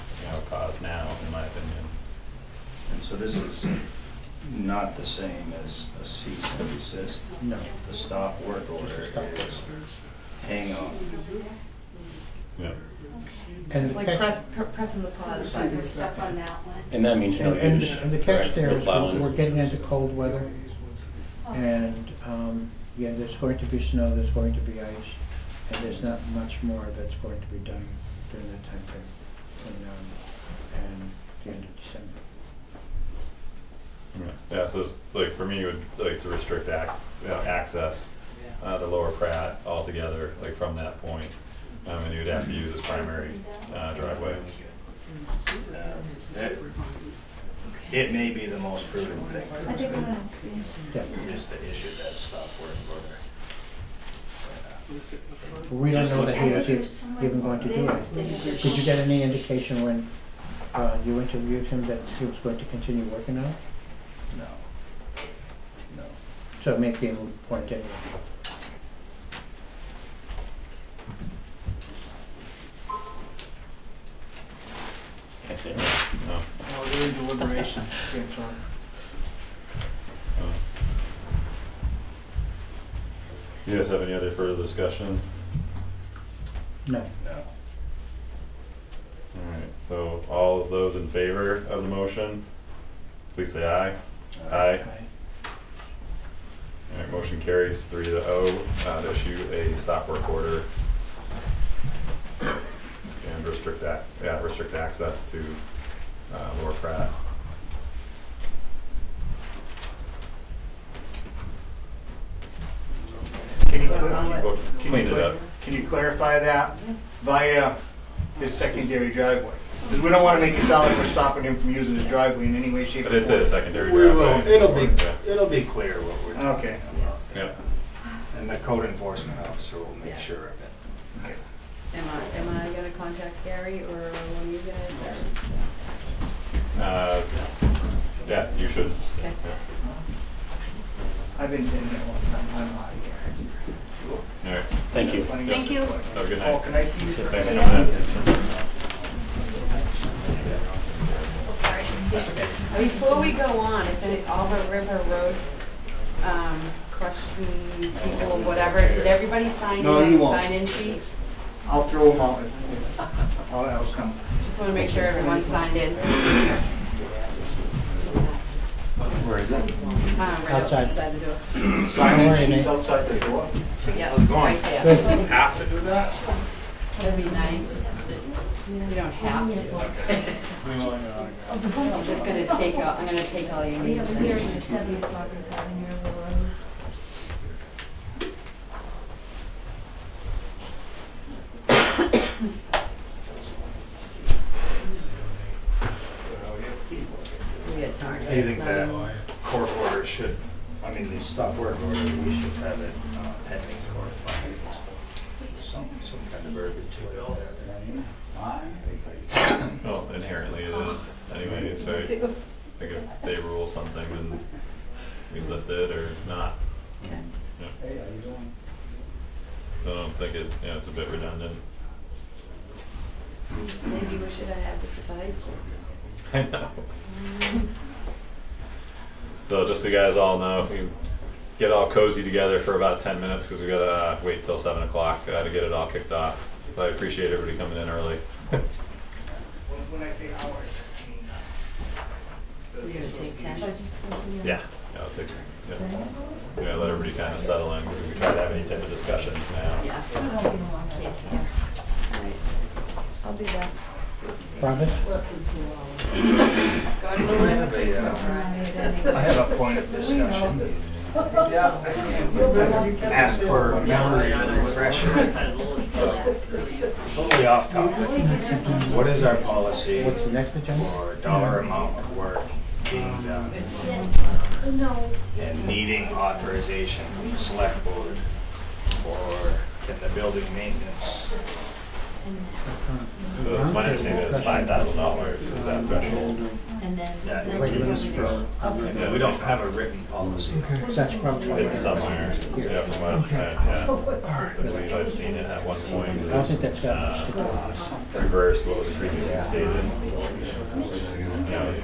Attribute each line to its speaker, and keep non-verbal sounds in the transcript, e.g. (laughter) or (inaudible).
Speaker 1: So this is not the same as a cease and desist.
Speaker 2: No.
Speaker 1: The stop work
Speaker 2: Just
Speaker 1: order
Speaker 2: a stop work.
Speaker 1: is hang on.
Speaker 3: Yeah.
Speaker 2: And
Speaker 4: It's
Speaker 2: the
Speaker 4: like
Speaker 2: catch,
Speaker 4: press, pr- pressing the pause
Speaker 5: So
Speaker 4: button.
Speaker 5: we're stuck on that one.
Speaker 6: And that means no
Speaker 2: and, and,
Speaker 6: use.
Speaker 2: and the
Speaker 6: correct?
Speaker 2: catch there
Speaker 6: No
Speaker 2: is we're-
Speaker 6: plowing.
Speaker 2: we're getting into cold weather and, um, yeah, there's going to be snow, there's going to be ice, and there's not much more that's going to be done during that time frame from now and the end of December.
Speaker 3: Yeah, so it's, like, for me, would like to restrict ac- you know, access, uh, to Lower Pratt altogether, like, from that point. Um, and you'd have to use his primary, uh, driveway.
Speaker 1: It- It may be the most prudent thing for us to
Speaker 2: Yeah,
Speaker 1: is to issue that stop work order.
Speaker 2: but we don't
Speaker 1: Just
Speaker 2: know that he
Speaker 1: looking
Speaker 2: was
Speaker 1: at-
Speaker 2: e- even going to do it.
Speaker 5: it.
Speaker 2: Did you get any indication when, uh, you interviewed him that he was going to continue working on it?
Speaker 1: No. No.
Speaker 2: So it may be a moot point anyway.
Speaker 6: That's it.
Speaker 3: No,
Speaker 7: Well, really deliberation came from.
Speaker 3: no. You guys have any other further discussion?
Speaker 2: No.
Speaker 1: No.
Speaker 3: Alright, so all of those in favor of the motion, please say aye.
Speaker 1: Uh,
Speaker 3: Aye.
Speaker 2: Aye.
Speaker 3: Alright, motion carries three to oh, uh, to issue a stop work order. And restrict ac- yeah, restrict access to, uh, Lower Pratt.
Speaker 7: Can you
Speaker 3: So,
Speaker 7: clar-
Speaker 3: we'll
Speaker 7: can you
Speaker 3: Clean it
Speaker 7: clar-
Speaker 3: up.
Speaker 7: Can you clarify that via this secondary driveway? Because we don't want to make it sound like we're stopping him from using his driveway in any way, shape, or
Speaker 3: But
Speaker 7: form.
Speaker 3: it's a secondary
Speaker 1: We
Speaker 3: driveway.
Speaker 1: will, it'll be,
Speaker 3: Yeah,
Speaker 1: it'll be clear what we're doing.
Speaker 7: Okay.
Speaker 3: Yeah,
Speaker 1: And the code enforcement officer will make sure of it.
Speaker 4: Am I, am I gonna contact Gary or one of you guys or?
Speaker 3: uh, yeah, you should.
Speaker 4: Okay.
Speaker 7: I've been sitting there one time, I'm out of here.
Speaker 3: Alright,
Speaker 6: Thank you.
Speaker 4: Thank you.
Speaker 3: have a good
Speaker 7: Oh,
Speaker 3: night.
Speaker 7: can I see you?
Speaker 3: Thanks for coming in.
Speaker 4: Before we go on, if any, all the River Road, um, question people, whatever, did everybody sign in
Speaker 7: No,
Speaker 4: on
Speaker 7: you
Speaker 4: the
Speaker 7: won't.
Speaker 4: sign-in sheet?
Speaker 7: I'll throw him out. if- if- I'll, I'll come.
Speaker 4: Just wanna make sure everyone's signed in. um,
Speaker 1: Where is it?
Speaker 4: Um, right
Speaker 2: Outside.
Speaker 4: outside the door.
Speaker 7: Sign
Speaker 2: Sorry,
Speaker 7: in sheets
Speaker 2: Nate.
Speaker 7: outside the door.
Speaker 4: Yeah,
Speaker 1: How's it going?
Speaker 4: right there.
Speaker 1: Have to do that?
Speaker 4: That'd be nice. You don't have to. I'm just gonna take, all- I'm gonna take all your
Speaker 5: We
Speaker 4: names.
Speaker 5: have a hearing at seven o'clock in Cotton Hill Road.
Speaker 4: We had time.
Speaker 1: Do you think that uh, court order should, I mean, the stop work order, we should have it uh, pending court findings? Some, some kind of verbiage to it all there.
Speaker 3: Well, inherently it is, anyway, it's very, like if they rule something, then we lift it or not. Yeah. So I don't think it, yeah, it's a bit redundant. (laughs)
Speaker 4: Maybe we should have had this at the high school.
Speaker 3: I know. So just so you guys all know, we get all cozy together for about ten minutes because we gotta uh, wait till seven o'clock uh, to get it all kicked off. But I appreciate everybody coming in early.
Speaker 7: When I say hours, I mean.
Speaker 4: We're gonna take ten.
Speaker 3: Yeah. Yeah, I'll take, yeah. Yeah, let everybody kind of settle in because we try to have any type of discussions now.
Speaker 4: Yeah. I'll be back.
Speaker 2: Promise?
Speaker 4: God willing.
Speaker 1: I have a point of discussion.
Speaker 7: Yeah.
Speaker 1: Ask for a memory refresher. Totally off topic. What is our policy
Speaker 2: What's the next agenda?
Speaker 1: for dollar amount of work being done
Speaker 3: uh,
Speaker 5: Yes, no, it's.
Speaker 1: and needing authorization from the select board? Or can the building maintenance
Speaker 3: So it's my understanding that it's five thousand dollars is that threshold.
Speaker 5: And then.
Speaker 1: that
Speaker 2: Wait,
Speaker 1: we
Speaker 2: let's go.
Speaker 1: Yeah, we don't have a written policy.
Speaker 2: That's probably.
Speaker 3: It's somewhere, yeah, from what, I- yeah. I believe I've seen it at one point.
Speaker 2: I don't think that's got
Speaker 3: Uh,
Speaker 2: much to do with this.
Speaker 3: reverse what was previously stated.